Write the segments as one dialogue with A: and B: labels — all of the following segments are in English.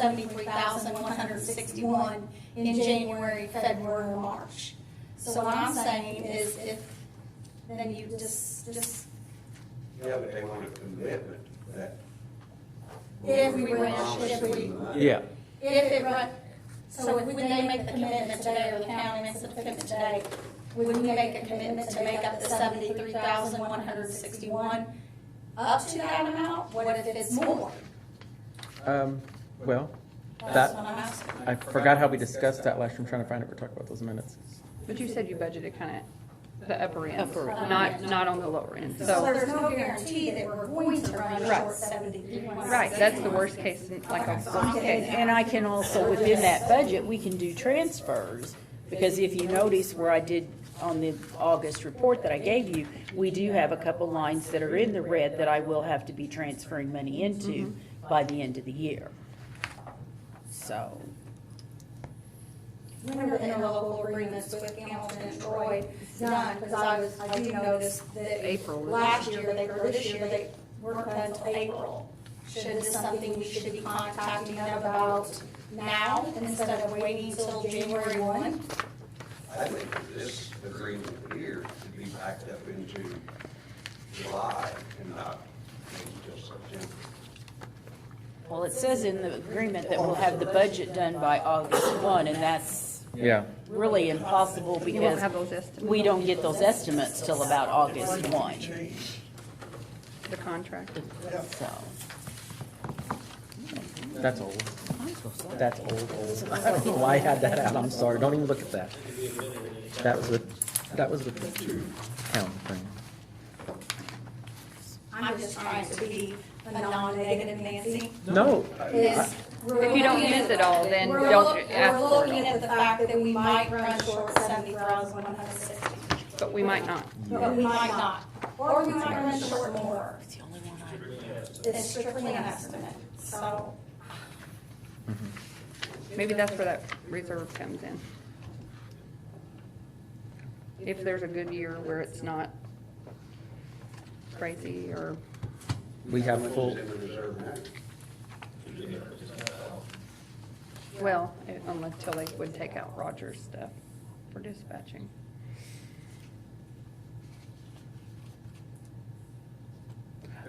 A: seventy-three thousand, one hundred sixty-one in January, February, and March. So what I'm saying is if, then you just, just,
B: Yeah, but they want a commitment that.
A: If we went out, if we-
C: Yeah,
A: if it run, so if we they make the commitment today, or the county makes the commitment today, would we make a commitment to make up the seventy-three thousand, one hundred sixty-one up to that amount? What if it's more?
C: um, well,
A: That's
C: That-
A: what I'm asking.
C: I forgot how we discussed that last year. I'm trying to find it. We're talking about those minutes.
D: But you said you budgeted kind of the upper end,
E: Upper
A: end.
D: not, not on the lower end,
A: So
D: so,
A: there's no guarantee that we're going to run short
E: Right.
A: seventy-three.
D: right, that's the worst case, like a worst
E: And,
D: case.
E: and I can also, within that budget, we can do transfers, because if you notice where I did on the August report that I gave you, we do have a couple lines that are in the red that I will have to be transferring money into
D: Mm-hmm.
E: by the end of the year. So,
A: Remember the interlocal agreements with Hamilton and Troy done, because I was, I do notice that.
D: April was-
A: Last year, they, or this year, they weren't done until April. Should this something we should be contacting them about now instead of waiting till January one?
B: I think this agreement here should be backed up into July and not until September.
E: well, it says in the agreement that we'll have the budget done by August one, and that's
C: Yeah,
E: really impossible
D: You won't
E: because
D: have those estimates,
E: we don't get those estimates till about August one,
D: the contract.
E: so.
C: that's old. That's old, old. I don't know why I had that out. I'm sorry. Don't even look at that. That was with, that was with the town thing.
A: I'm just trying to be a non-negative Nancy.
C: No,
A: Is. we're
D: If you don't
A: looking at-
D: miss it all, then
A: we're
D: don't
A: look-
D: ask for
A: We're
D: it
A: looking
D: all.
A: at the fact that we might run short seventy thousand, one hundred sixty.
D: But we might not.
A: But we might not, or we might run short more. It's strictly an estimate, so.
D: Maybe that's where that reserve comes in. If there's a good year where it's not crazy or,
C: we
B: How
C: have
B: much
C: full,
B: is in the reserve now?
D: well, until they would take out Roger's stuff for dispatching.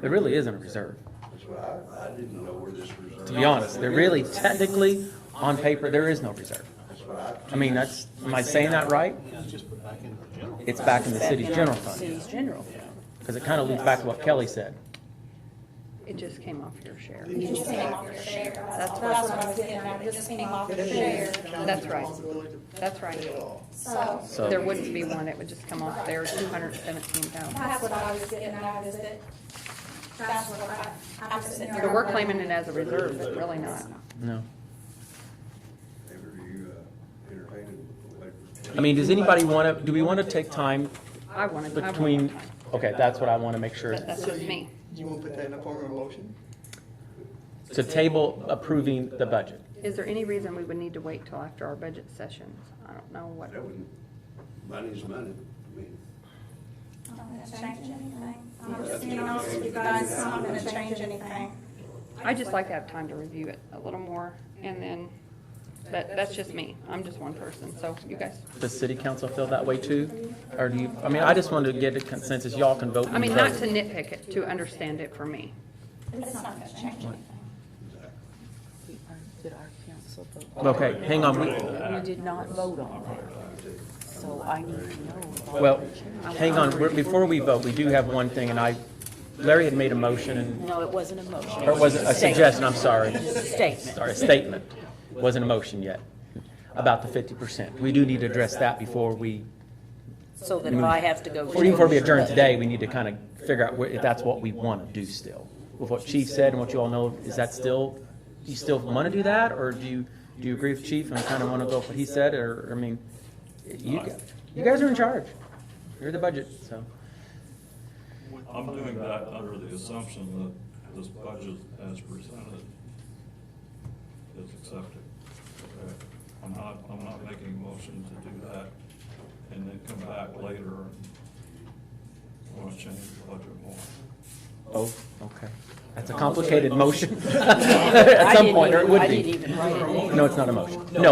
C: there really isn't a reserve.
B: That's what I, I didn't know where this reserve.
C: To be honest, there really technically, on paper, there is no reserve.
B: That's what I.
C: I mean, that's, am I saying that right? It's back in the city's general fund,
E: City's general fund.
C: because it kind of leads back to what Kelly said.
D: It just came off your share.
A: It just came off your share, that's all, that's what I was getting at, it just came off your share,
D: That's right. That's right.
A: so.
C: So-
D: There wouldn't be one, it would just come off there, two hundred seventeen thousand.
A: That's what I was getting at, is it, that's what I, I was sitting there.
D: But we're claiming it as a reserve, but really not.
C: No.
B: Ever you, uh, entertaining?
C: I mean, does anybody want to, do we want to take time
D: I wanted, I wanted,
C: between, okay, that's what I want to make sure,
D: but that's
F: So
D: just
F: you-
D: me.
F: You want to put that in the form of a motion?
C: to table approving the budget.
D: Is there any reason we would need to wait till after our budget sessions? I don't know what,
B: That wouldn't, money's money, I mean.
A: I'm not gonna change anything, I'm just being honest with you guys, I'm not gonna change anything.
D: I just like to have time to review it a little more and then, but that's just me. I'm just one person, so you guys.
C: Does city council feel that way too? Or do you, I mean, I just wanted to get a consensus, y'all can vote.
D: I mean,
C: and
D: not
C: vote.
D: to nitpick it, to understand it for me.
A: It's not gonna change anything.
E: Did our council vote?
C: Okay, hang on, we-
E: We did not vote on that, so I need to know. about
C: well,
E: the change.
C: hang on, We're- before we vote, we do have one thing, and I, Larry had made a motion, and,
E: No, it wasn't a motion.
C: or was it a suggestion, I'm sorry.
E: It was a statement.
C: Sorry, a statement, wasn't a motion yet, about the fifty percent. We do need to address that before we
E: So that if I have to go.
C: Or even before we adjourn today, we need to kind of figure out where- if that's what we want to do still. With what Chief said and what you all know, is that still, do you still want to do that? Or do you, do you agree with Chief and kind of want to go with what he said? Or, I mean, you, g- you guys are in charge. You're the budget, so.
G: I'm doing that under the assumption that this budget as presented is accepted. Okay? I'm not, I'm not making a motion to do that and then come back later and want to change the budget more.
C: Oh, okay. That's a complicated motion at some point, or it would
E: I didn't
C: be.
E: even write it.
C: No, it's not a motion. No,